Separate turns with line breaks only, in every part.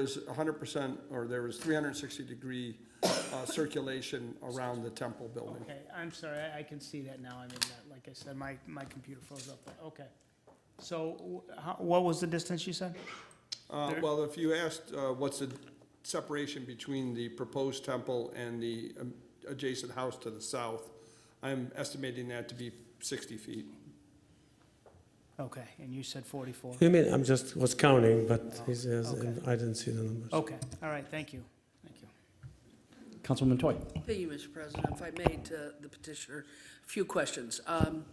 was hundred percent, or there was three hundred and sixty degree, uh, circulation around the temple building.
Okay, I'm sorry, I- I can see that now, I mean, that- like I said, my, my computer froze up, but, okay. So, wh- how- what was the distance you said?
Uh,
There-
well, if you asked, uh, what's the separation between the proposed temple and the um, adjacent house to the south, I'm estimating that to be sixty feet.
Okay, and you said 44?
You mean, I'm just, was counting, but he says,
Okay.
I didn't see the numbers.
Okay, all right, thank you, thank you.
Councilwoman Toy.
Thank you, Mr. President. If I may, to the petitioner, a few questions. Um,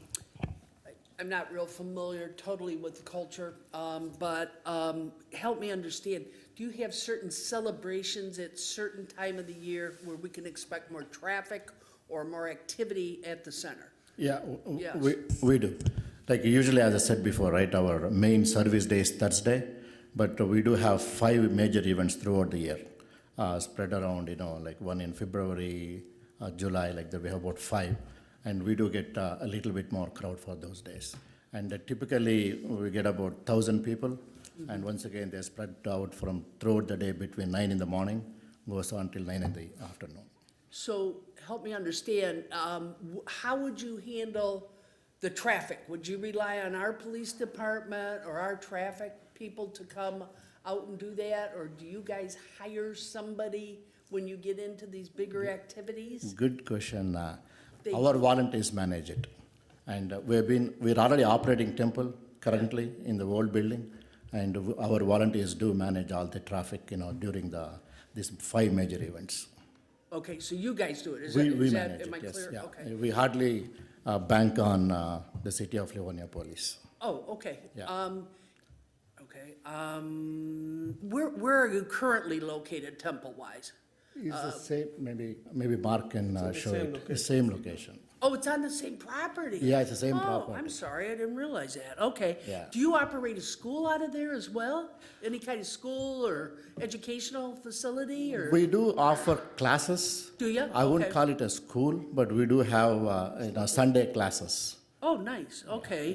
I- I'm not real familiar totally with the culture, um, but um, help me understand, do you have certain celebrations at certain time of the year where we can expect more traffic or more activity at the center?
Yeah, w- w-
Yes.
we, we do. Like usually, as I said before, right, our main service day is Thursday, but we do have five major events throughout the year, uh, spread around, you know, like one in February, uh, July, like that we have about five. And we do get uh, a little bit more crowd for those days. And uh, typically, we get about 1,000 people. And once again, they're spread out from throughout the day between 9 in the morning, goes on till 9 in the afternoon.
So help me understand, um, wh- how would you handle the traffic? Would you rely on our police department or our traffic people to come out and do that? Or do you guys hire somebody when you get into these bigger
Mm-hmm.
activities?
Good question. uh,
Thank
Our volunteers manage it. And uh, we've been, we're already operating temple currently in the old building. And w- our volunteers do manage all the traffic, you know, during the, these five major events.
Okay, so you guys do it, is that,
We, we
is that,
manage it,
am I clear?
yes, yeah.
Okay.
We hardly uh, bank on uh, the city of Livonia police.
Oh, okay.
Yeah.
Um, okay, um, where, where are you currently located temple-wise?
It's
Uh,
the same, maybe, maybe Mark can uh, show
same
it, The same location.
Oh, it's on the same property?
Yeah, it's the same
Oh, I'm
property.
sorry, I didn't realize that, okay.
Yeah.
Do you operate a school out of there as well? Any kind of school or educational facility, or?
We do offer classes.
Do ya?
I wouldn't
Okay.
call it a school, but we do have, uh, you know, Sunday classes.
Oh, nice, okay.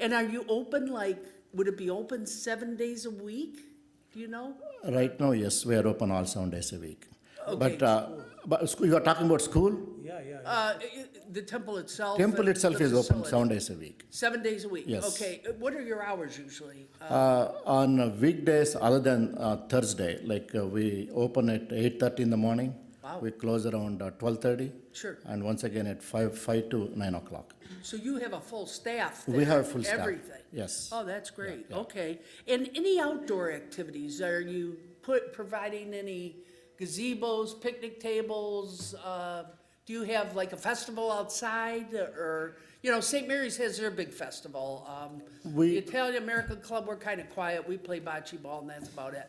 And are you open, like, would it be open seven days a week? Do you know?
Right now, yes, we are open all seven days a week. But,
Okay,
uh, but school- you are talking about school?
Yeah, yeah.
Uh, i- i- the temple itself?
Temple
and
itself
the
is open
facility?
seven days a week.
Seven days a week?
Yes.
Okay, Uh, what are your hours usually? Uh,
Uh, on weekdays, other than uh, Thursday, like uh, we open at eight thirty in the morning.
Wow.
We close around uh, twelve thirty.
Sure.
And once again at five, five to nine o'clock.
So you have a full staff
We
there,
have a full staff,
Everything?
yes.
Oh, that's great, okay. And any outdoor activities, are you put, providing any gazebos, picnic tables? uh, Do you have like a festival outside, or, you know, St. Mary's has their big festival. um,
We-
The Italian American Club, we're kind of quiet, we play bocce ball and that's about it.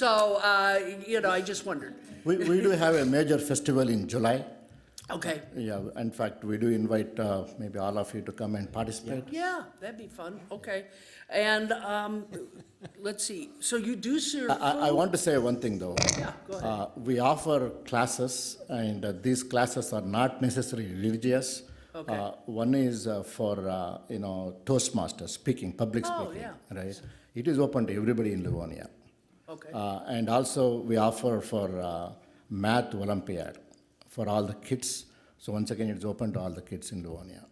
So, uh, you know, I just wondered,
We, we do have a major festival in July.
okay,
Yeah, in fact, we do invite uh, maybe all of you to come and participate.
yeah, that'd be fun, okay. And, um, let's see, so you do serve food?
I, I want to say one thing though.
Yeah, go ahead.
Uh, we offer classes, and uh, these classes are not necessarily religious.
Okay.
Uh, one is uh, for uh, you know Toastmasters speaking, public
Oh,
speaking,
yeah.
right? It is open to everybody in Livonia,
Okay.
uh, and also we offer for uh, math Olympiad for all the kids. So once again, it's open to all the kids in Livonia.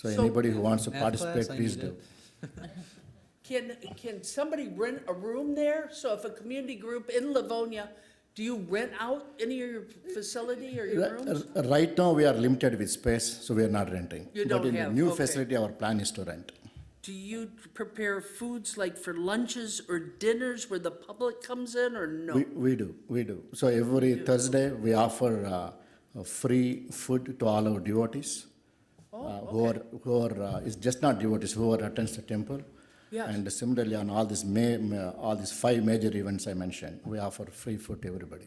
So,
So-
anybody who wants to
Math class,
participate,
I
please
need
do.
it.
Can, can somebody rent a room there? So if a community group in Livonia, do you rent out any of your facility or your
Ri-
rooms?
r- Right now, we are limited with space, so we are not renting.
You
But
don't
in the
have,
new
okay.
facility, our plan is to rent.
Do you prepare foods like for lunches or dinners where the public comes in or
We,
no?
we do, we do. So every Thursday, we offer uh, uh, free food to all our devotees.
Oh,
uh, Who are, who are, uh, it's just not devotees, who are attends the temple.
Yes.
And similarly, on all these ma, ma- all these five major events I mentioned, we offer free food to everybody.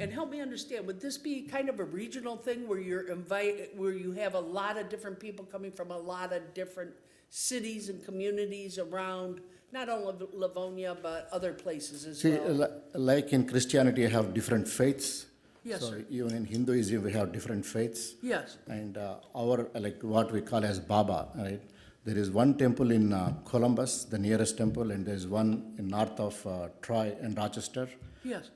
And help me understand, would this be kind of a regional thing where you're invite, where you have a lot of different people coming from a lot of different cities and communities around, not only Livonia, but other places as
See, uh,
well?
li- like in Christianity, you have different faiths.
Yes,
So
sir.
Even in Hinduism, we have different faiths.
Yes,
And uh, our, like what we call as Baba, right? There is one temple in uh, Columbus, the nearest temple, and there's one in north of uh, Troy and Rochester.
Yes.